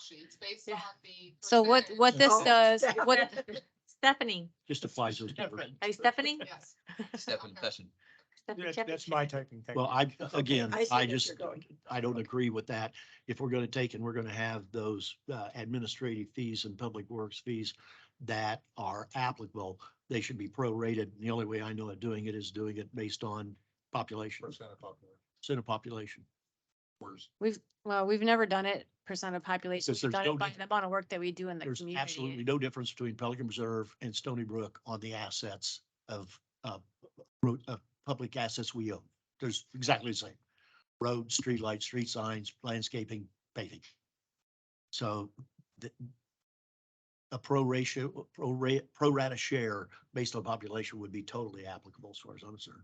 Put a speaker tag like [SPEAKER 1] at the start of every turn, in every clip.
[SPEAKER 1] sheets based
[SPEAKER 2] Yeah.
[SPEAKER 1] on the.
[SPEAKER 2] So what,
[SPEAKER 1] percentage.
[SPEAKER 2] what this
[SPEAKER 3] Oh,
[SPEAKER 2] does, what, Stephanie,
[SPEAKER 4] just applies those different.
[SPEAKER 2] are you Stephanie?
[SPEAKER 1] Yes.
[SPEAKER 5] Step in
[SPEAKER 1] Okay.
[SPEAKER 5] session.
[SPEAKER 2] Stephanie
[SPEAKER 3] That-
[SPEAKER 2] Shepherd?
[SPEAKER 3] That's my typing.
[SPEAKER 4] Well, I,
[SPEAKER 3] technique.
[SPEAKER 4] again,
[SPEAKER 3] I see
[SPEAKER 4] I
[SPEAKER 3] what you're
[SPEAKER 4] just,
[SPEAKER 3] going.
[SPEAKER 4] I don't agree with that. If we're going to take and we're going to have those uh, administrative fees and public works fees that are applicable, they should be prorated. The only way I know of doing it is doing it based on population,
[SPEAKER 3] Percent of popular.
[SPEAKER 4] percent of population.
[SPEAKER 2] We've, well, we've never done it percent of population.
[SPEAKER 4] Since
[SPEAKER 2] We've
[SPEAKER 4] there's
[SPEAKER 2] done
[SPEAKER 4] no
[SPEAKER 2] it by
[SPEAKER 4] dif-
[SPEAKER 2] the amount of work that we do in the
[SPEAKER 4] There's
[SPEAKER 2] community.
[SPEAKER 4] absolutely no difference between Pelican Reserve and Stony Brook on the assets of, uh, road, of public assets we own. There's exactly the same. Roads, streetlights, street signs, landscaping, paving. So the a pro ratio, pro rate, pro rata share based on population would be totally applicable as far as I'm concerned.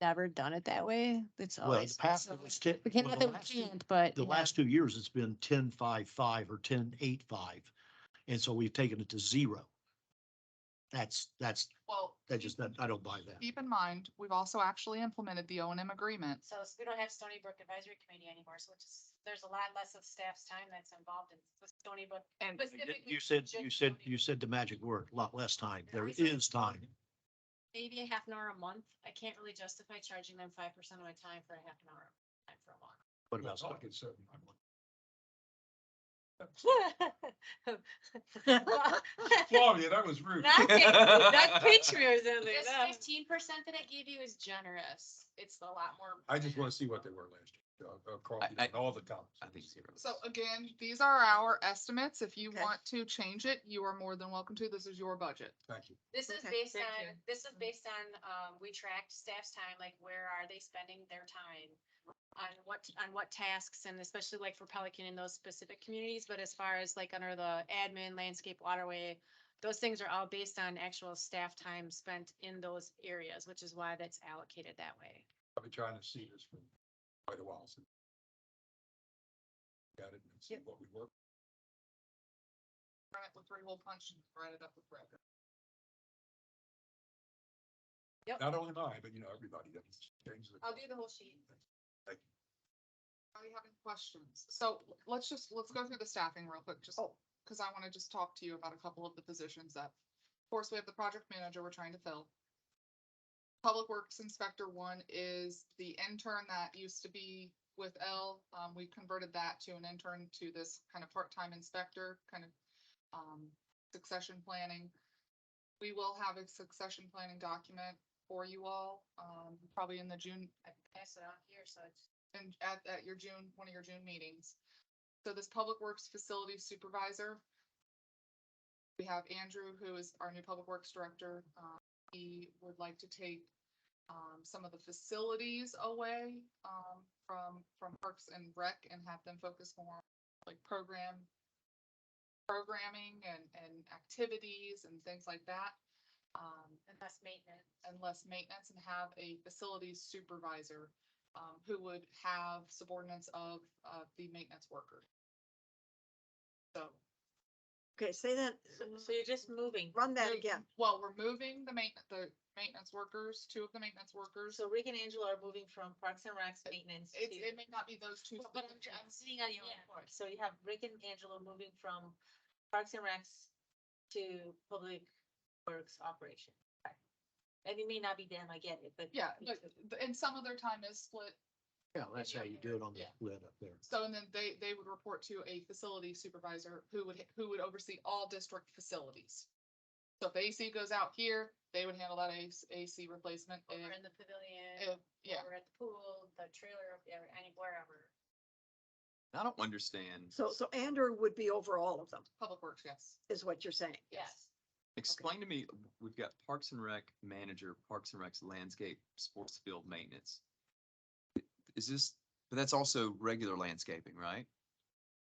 [SPEAKER 2] Never done it that way. It's
[SPEAKER 4] Well, in the
[SPEAKER 2] always.
[SPEAKER 4] past,
[SPEAKER 2] Oh, so-
[SPEAKER 4] it was ten.
[SPEAKER 2] We can't,
[SPEAKER 4] well,
[SPEAKER 2] not
[SPEAKER 4] the
[SPEAKER 2] that we
[SPEAKER 4] last two-
[SPEAKER 2] can't, but.
[SPEAKER 4] the
[SPEAKER 2] you know,
[SPEAKER 4] last two years, it's been ten, five, five or ten, eight, five. And so we've taken it to zero. That's, that's,
[SPEAKER 1] Well,
[SPEAKER 4] that just, that- I don't buy that.
[SPEAKER 1] keep in mind, we've also actually implemented the O and M agreement.
[SPEAKER 2] So s- we don't have Stony Brook Advisory Committee anymore, so it's, just- there's a lot less of staff's time that's involved in the Stony Brook.
[SPEAKER 1] And
[SPEAKER 2] specifically
[SPEAKER 4] You said,
[SPEAKER 2] just
[SPEAKER 4] you
[SPEAKER 2] Stony
[SPEAKER 4] said, you
[SPEAKER 2] Brook.
[SPEAKER 4] said the magic word, lot less time. There
[SPEAKER 2] I said-
[SPEAKER 4] is time.
[SPEAKER 2] Maybe a half an hour a month. I can't really justify charging them five percent of my time for a half an hour, time for a walk.
[SPEAKER 4] What about?
[SPEAKER 3] Claudia, that was rude.
[SPEAKER 5] that's
[SPEAKER 2] in
[SPEAKER 1] there,
[SPEAKER 2] This
[SPEAKER 1] no.
[SPEAKER 2] fifteen percent that I gave you is generous. It's a lot more.
[SPEAKER 3] I just want to see what they were last year, uh, across
[SPEAKER 5] I- I-
[SPEAKER 3] all the columns.
[SPEAKER 5] I think zero.
[SPEAKER 1] So again, these are our estimates. If you
[SPEAKER 6] Okay.
[SPEAKER 1] want to change it, you are more than welcome to. This is your budget.
[SPEAKER 3] Thank you.
[SPEAKER 2] This is
[SPEAKER 6] Okay,
[SPEAKER 2] based
[SPEAKER 6] thank
[SPEAKER 2] on,
[SPEAKER 6] you.
[SPEAKER 2] this is based on, um, we tracked staff's time, like where are they spending their time? On what, on what tasks and especially like for Pelican in those specific communities, but as far as like under the admin, landscape, waterway. Those things are all based on actual staff time spent in those areas, which is why that's allocated that way.
[SPEAKER 3] I've been trying to see this for quite a while since. Got it and see
[SPEAKER 6] Yep.
[SPEAKER 3] what we work.
[SPEAKER 1] Run it with three hole punch and write it up with red.
[SPEAKER 3] Not only mine, but you know, everybody that changes.
[SPEAKER 2] I'll do the whole sheet.
[SPEAKER 1] Are you having questions? So let's just, let's go through the staffing real quick, just because I want to just talk to you about a couple of the positions that. Of course, we have the project manager we're trying to fill. Public Works Inspector one is the intern that used to be with L. Um, we converted that to an intern to this kind of part-time inspector, kind of um, succession planning. We will have a succession planning document for you all, um, probably in the June,
[SPEAKER 2] I can pass it on here, so it's.
[SPEAKER 1] and at, at your June, one of your June meetings. So this Public Works Facility Supervisor. We have Andrew, who is our new Public Works Director. Um, he would like to take um, some of the facilities away um, from, from Parks and Rec and have them focus more on, like program, programming and, and activities and things like that. Um,
[SPEAKER 2] And less maintenance.
[SPEAKER 1] and less maintenance and have a facilities supervisor um, who would have subordinates of uh, the maintenance worker. So,
[SPEAKER 6] Okay, say that,
[SPEAKER 2] So you're just moving.
[SPEAKER 6] run that
[SPEAKER 1] Move-
[SPEAKER 6] again.
[SPEAKER 1] well, we're moving the main, the maintenance workers, two of the maintenance workers.
[SPEAKER 2] So Rick and Angela are moving from Parks and Recs maintenance
[SPEAKER 1] It, it may not be those two.
[SPEAKER 2] Well, But I'm,
[SPEAKER 1] specifically.
[SPEAKER 2] I'm sitting on your report, so you have Rick and Angelo moving from Parks and Recs to Public Works Operation. And it may not be them, I get it, but.
[SPEAKER 1] Yeah, but, th- and some of their time is split.
[SPEAKER 4] Yeah, that's how you do it on the
[SPEAKER 1] Yeah.
[SPEAKER 4] lid up there.
[SPEAKER 1] So, and then they, they would report to a facility supervisor who would, who would oversee all district facilities. So if the AC goes out here, they would handle that AC AC replacement.
[SPEAKER 2] Over
[SPEAKER 1] If-
[SPEAKER 2] in the pavilion,
[SPEAKER 1] if- Uh, Yeah,
[SPEAKER 2] over at the pool, the trailer, or any wherever.
[SPEAKER 5] I don't understand.
[SPEAKER 6] So, so Andrew would be over all of them,
[SPEAKER 1] Public Works, yes.
[SPEAKER 6] is what you're saying.
[SPEAKER 2] Yes.
[SPEAKER 5] Explain to me, we've got Parks and Rec manager, Parks and Rec's landscape, sports field maintenance. Is this, but that's also regular landscaping, right?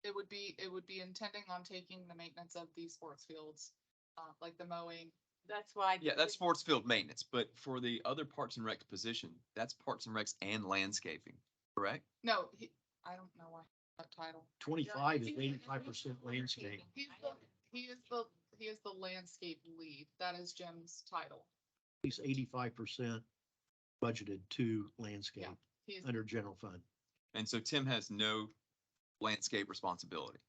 [SPEAKER 1] It would be, it would be intending on taking the maintenance of the sports fields, uh, like the mowing.
[SPEAKER 2] That's why.
[SPEAKER 5] Yeah, that's sports field maintenance, but for the other Parks and Rec position, that's Parks and Recs and landscaping, correct?
[SPEAKER 1] No, he, I don't know why, that title.
[SPEAKER 4] Twenty-five is eighty-five percent landscape.
[SPEAKER 1] He's the, he is the, he is the landscape lead. That is Jim's title.
[SPEAKER 4] He's eighty-five percent budgeted to landscape
[SPEAKER 1] He's,
[SPEAKER 4] under general fund.
[SPEAKER 5] And so Tim has no landscape responsibility.